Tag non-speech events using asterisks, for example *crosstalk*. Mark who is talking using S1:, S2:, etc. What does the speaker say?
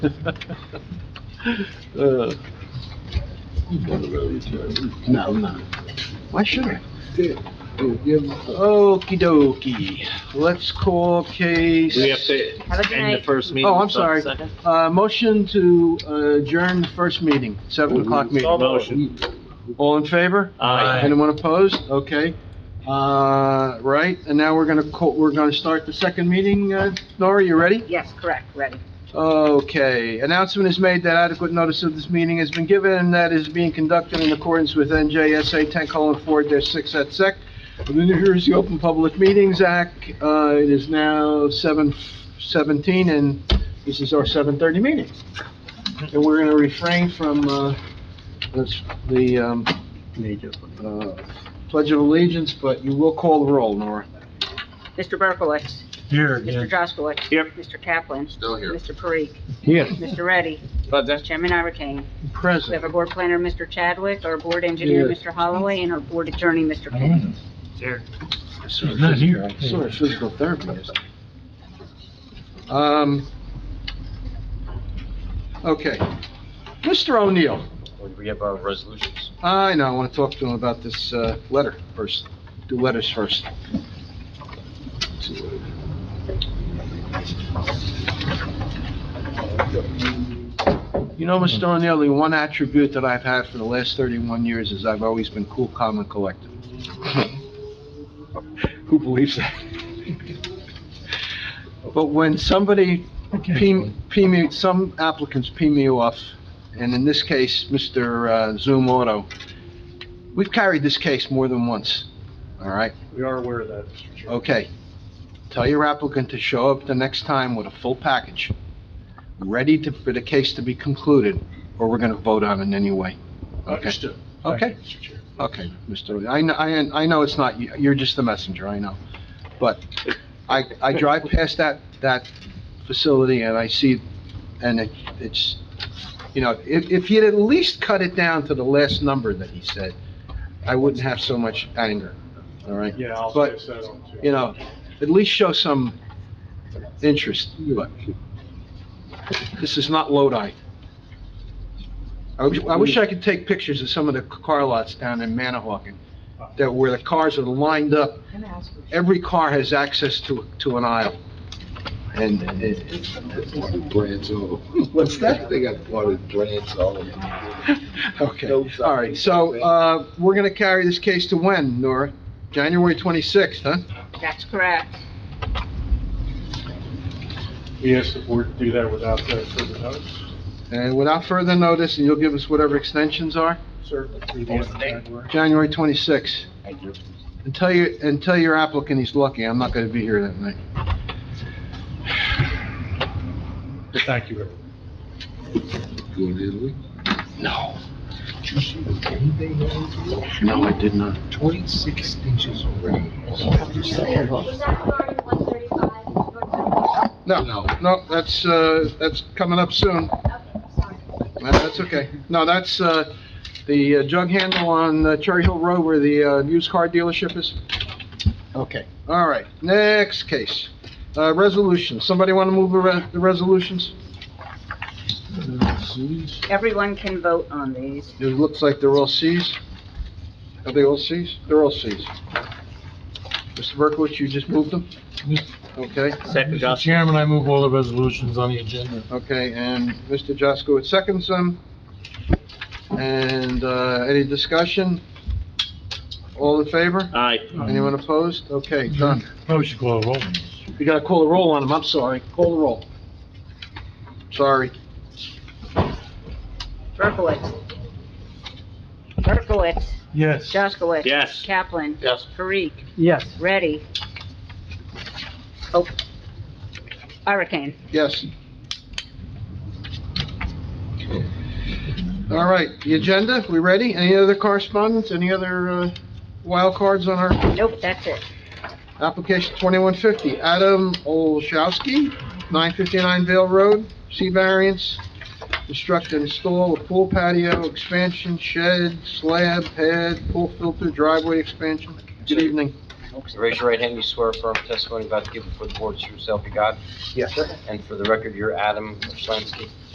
S1: Uh,
S2: No, no. Why should I?
S1: Okey dokey. Let's call case.
S3: We have to
S4: Have a good
S3: end the
S4: night.
S3: first meeting.
S1: Oh, I'm
S3: so-
S1: sorry. Uh, motion to adjourn the first meeting, seven o'clock meeting.
S3: Motion.
S1: All in favor?
S3: Aye.
S1: Anyone opposed? Okay. Uh, right, and now we're gonna, co- we're gonna start the second meeting. Uh, Nora, you ready?
S4: Yes, correct, ready.
S1: Okay, announcement is made that adequate notice of this meeting has been given and that is being conducted in accordance with NJSA ten colon four six at sec. The New Jersey Open Public Meetings Act, uh, it is now seven seventeen and this is our seven thirty meeting. And we're gonna refrain from, uh, this, the, um, uh, Pledge of Allegiance, but you will call the roll, Nora.
S4: Mr. Berkowitz. Here Mr. Jaskowitz.
S3: Yep.
S4: Mr. Kaplan.
S2: Still here.
S4: Mr. Parikh.
S1: Yes.
S4: Mr. Reddy.
S3: But then-
S4: Chairman Irakane. We have
S1: Present.
S4: our board planner, Mr. Chadwick, our board engineer, Mr. Holloway, and our board attorney, Mr. Penn.
S1: Sort of
S5: Not here.
S1: physical- Sort of physical therapy is. Um, okay. Mr. O'Neill,
S3: We have our resolutions.
S1: I know, I want to talk to him about this, uh, letter first, do letters first. You know, Mr.
S5: Hmm.
S1: O'Neill, the one attribute that I've had for the last thirty-one years is I've always been cool, calm, and collected. Who believes that? But when somebody P, P me, some applicants P me off, and in this case, Mr. uh, Zoom Auto, we've carried this case more than once, all right?
S5: We are aware of that, Mr. Chairman.
S1: Okay, tell your applicant to show up the next time with a full package, ready to, for the case to be concluded, or we're gonna vote on it anyway. Oh, Okay,
S5: Understood. Thank you,
S1: okay,
S5: Mr. Chair.
S1: okay, Mr. I, kn- I, I know it's not, you. you're just the messenger, I know. But I, I drive past that, that facility and I see, and it, it's, you know, if, if he'd at least cut it down to the last number that he said, I wouldn't have so much anger, all right?
S5: Yeah, I'll
S1: But-
S5: fix that on too.
S1: you know, at least show some interest, but this is not Lodi. I wish, I wish I could take pictures of some of the car lots down in Manahawkin, that where the cars are lined up, every car has access to, to an aisle. And it,
S2: Brands all.
S1: *laughs* What's that?
S2: They got plotted brands all over.
S1: *laughs* okay, all right, so, uh, we're gonna carry this case to when, Nora? January twenty-sixth, huh?
S4: That's correct.
S5: We asked the board to do that without uh, further notice,
S1: And without further notice, and you'll give us whatever extensions are?
S5: sir. We
S3: What's the
S5: want-
S3: date?
S1: January 26th.
S3: Thank you.
S1: And tell your, and tell your applicant he's lucky, I'm not gonna be here that night.
S5: Thank you, everyone.
S2: Going to Italy?
S1: No,
S2: Did you see the game they had?
S1: no, I did not. Oh,
S2: Twenty-six inches already.
S6: Was that starting at 135?
S1: No, no, that's, uh, that's coming up soon.
S6: Okay, sorry.
S1: That- That's okay. No, that's, uh, the uh, jug handle on uh, Cherry Hill Road where the, uh, used car dealership is. Okay, all right, next case. Uh, resolution, somebody wanna move the re- the resolutions?
S4: Everyone can vote on these.
S1: It looks like they're all Cs. Are they all Cs? They're all Cs. Mr. Berkowitz, you just moved them? Okay,
S3: Second, Josh.
S5: Chairman, I move all the resolutions on the agenda.
S1: okay, and Mr. Jaskowitz seconds them. And, uh, any discussion? All in favor?
S3: Aye.
S1: Anyone opposed? Okay, done.
S5: Probably should call a roll.
S1: You gotta call the roll on them, I'm sorry. Call the roll. Sorry.
S4: Berkowitz. Berkowitz.
S5: Yes.
S4: Jaskowitz.
S3: Yes.
S4: Kaplan.
S3: Yes.
S4: Parikh.
S5: Yes.
S4: Ready. Oh. Irakane.
S1: Yes. All right, the agenda, we ready? Any other correspondence, any other uh, wild cards on our
S4: Nope, that's it.
S1: application 2150? Adam Olszewski, 959 Vale Road, C variance, construct and install a pool patio, expansion, shed, slab, pad, pool filter, driveway expansion. Good evening.
S7: Raise your right hand, you swear affirm testimony about to give before the board is true self you got,
S1: Yes,
S7: and for the record, you're Adam Schlansky.